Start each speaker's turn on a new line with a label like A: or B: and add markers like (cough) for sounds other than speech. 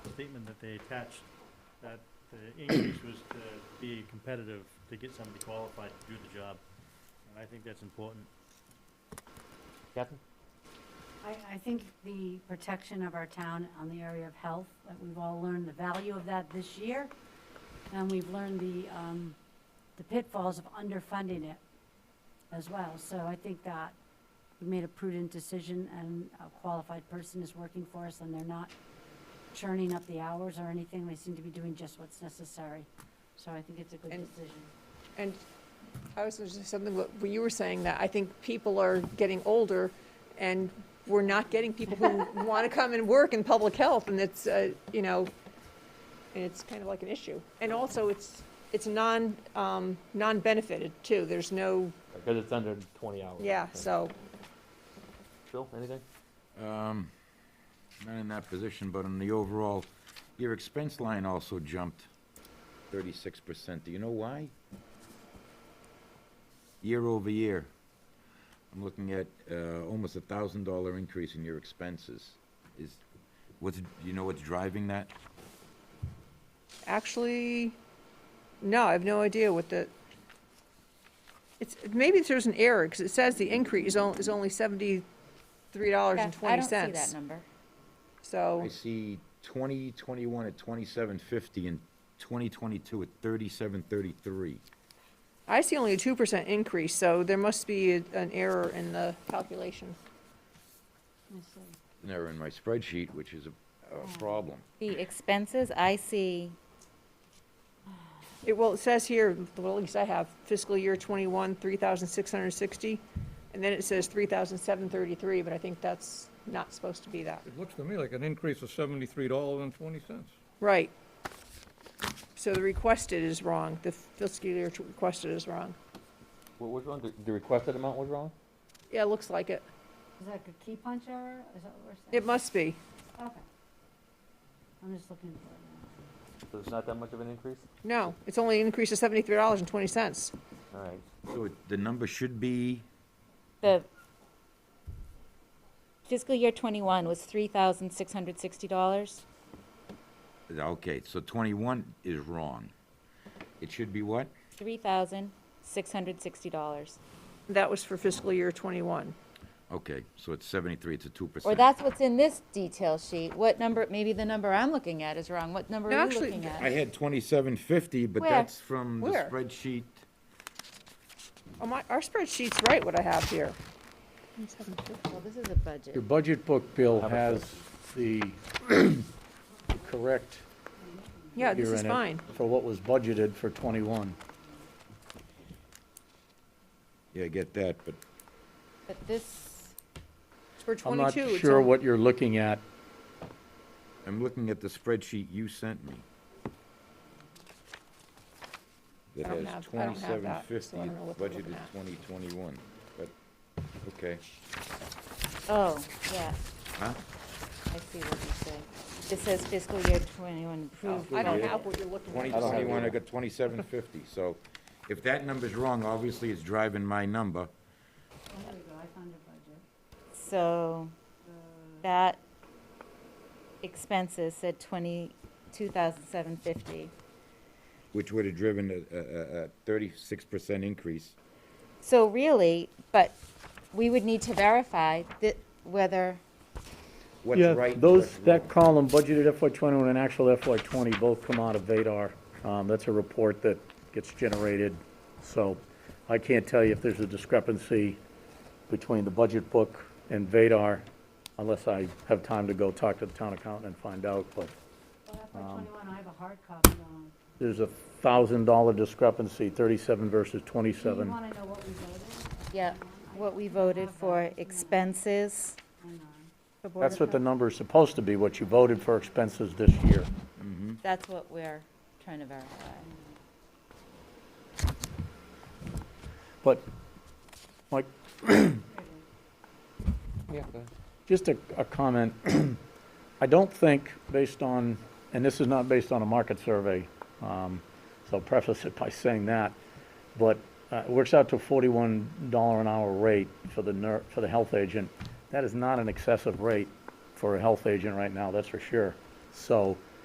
A: statement that they attached, that the increase was to be competitive, to get somebody qualified to do the job. And I think that's important.
B: Captain?
C: I, I think the protection of our town on the area of health, that we've all learned the value of that this year. And we've learned the, um, the pitfalls of underfunding it as well. So I think that we made a prudent decision and a qualified person is working for us and they're not churning up the hours or anything. They seem to be doing just what's necessary. So I think it's a good
D: And-
C: decision.
D: And I was just something, what what you were saying, that I think people are getting older, and we're not getting people
E: (laughs)
D: who want to come and work in public health, and it's, uh, you know, and it's kind of like an issue. And also, it's, it's non, um, non-benefited, too. There's no,
B: Because it's under 20 hours.
D: yeah,
B: Okay.
D: so,
B: Bill, anything?
F: Um, Not in that position, but in the overall, your expense line also jumped 36%. Do you know why? Year over year, I'm looking at uh, almost a $1,000 increase in your expenses. Is, what's, do you know what's driving that?
D: actually, no, I have no idea what the, it's, maybe there's an error, because it says the increase is on- is only seventy-three dollars and
E: I
D: twenty
E: don't
D: cents.
E: see that number.
D: So.
F: I see 2021 at 2750 and 2022 at 3733.
D: I see only a two percent increase, so there must be a- an error in the calculation.
C: Let me see.
F: And they're in my spreadsheet, which is a- a problem.
E: The expenses, I see,
D: It, well, it says here, well, at least I have fiscal year twenty-one, three thousand six hundred sixty, and then it says three thousand seven thirty-three, but I think that's not supposed to be that.
G: It looks to me like an increase of seventy-three dollars and twenty cents.
D: Right. So the requested is wrong, the fiscal year t- requested is wrong.
B: What was wrong? The- The requested amount was wrong?
D: Yeah, it looks like it.
C: Is that a key punch error? Is that what we're saying?
D: It must be.
C: Okay. I'm just looking for it now.
B: So it's not that much of an increase?
D: No, it's only an increase of seventy-three dollars and twenty cents.
B: All right.
F: So it- the number should be,
E: the fiscal year twenty-one was three thousand six hundred sixty dollars.
F: okay, so 21 is wrong. It should be what?
E: Three thousand six hundred sixty dollars.
D: That was for fiscal year twenty-one.
F: Okay, so it's 73, it's a 2%.
E: Or that's what's in this detail sheet. What number, maybe the number I'm looking at is wrong. What number
D: No,
E: are you
D: actually,
E: looking
F: I
E: at?
F: had 2750, but
E: Where?
F: that's from the
D: Where?
F: spreadsheet.
D: Oh, my, our spreadsheet's right, what I have here.
E: Well, this is a budget.
H: Your budget book, Bill, has the (coughs) correct
D: Yeah, Uh, this
H: figure
D: is
H: in it
D: fine.
H: for what was budgeted for '21.
F: Yeah, I get that, but
E: But this,
D: For
H: I'm not
D: 22, it's
H: sure
D: on-
H: what you're looking at.
F: I'm looking at the spreadsheet you sent me. That
D: I don't
F: has
D: have- I don't have that, so
F: 2750
D: I don't know what they're looking
F: budgeted
D: at.
F: 2021, but, okay.
E: oh, yeah,
F: Huh?
E: I see what you say. It says fiscal year twenty-one approved.
D: I don't
E: budget.
D: have what you're looking
F: Twenty
D: at.
H: don't have
F: twenty-one, I
H: either.
F: got twenty-seven fifty, so if that number's wrong, obviously it's driving my number.
C: Oh, There we go, I found your budget.
E: So that expenses said twenty-two thousand seven fifty.
F: Which would have driven a, a, a thirty-six percent increase.
E: So really, but we would need to verify that whether,
F: What's
H: Yeah,
F: right? and
H: those,
F: what's
H: that
F: wrong?
H: column, budgeted FY '21 and actual FY '20, both come out of Vadar. Um, That's a report that gets generated, so I can't tell you if there's a discrepancy between the budget book and Vadar, unless I have time to go talk to the town accountant and find out, but
C: Well, FY twenty-one, I have a hard copy um, on.
H: there's a $1,000 discrepancy, 37 versus
C: Do you
H: 27.
C: wanna know what we voted?
E: yeah, what we voted for expenses.
C: Hang on.
E: for Board
H: That's
E: of
H: what the
E: Health,
H: number is supposed to be, what you voted for expenses this year.
E: That's what we're trying to verify.
H: But, Mike,
B: Yeah, go ahead.
H: just a, a comment. (clears throat) I don't think, based on, and this is not based on a market survey, um, so I'll preface it by saying that, but uh, it works out to a forty-one dollar an hour rate for the ner, for the health agent. That is not an excessive rate for a health agent right now, that's for sure. So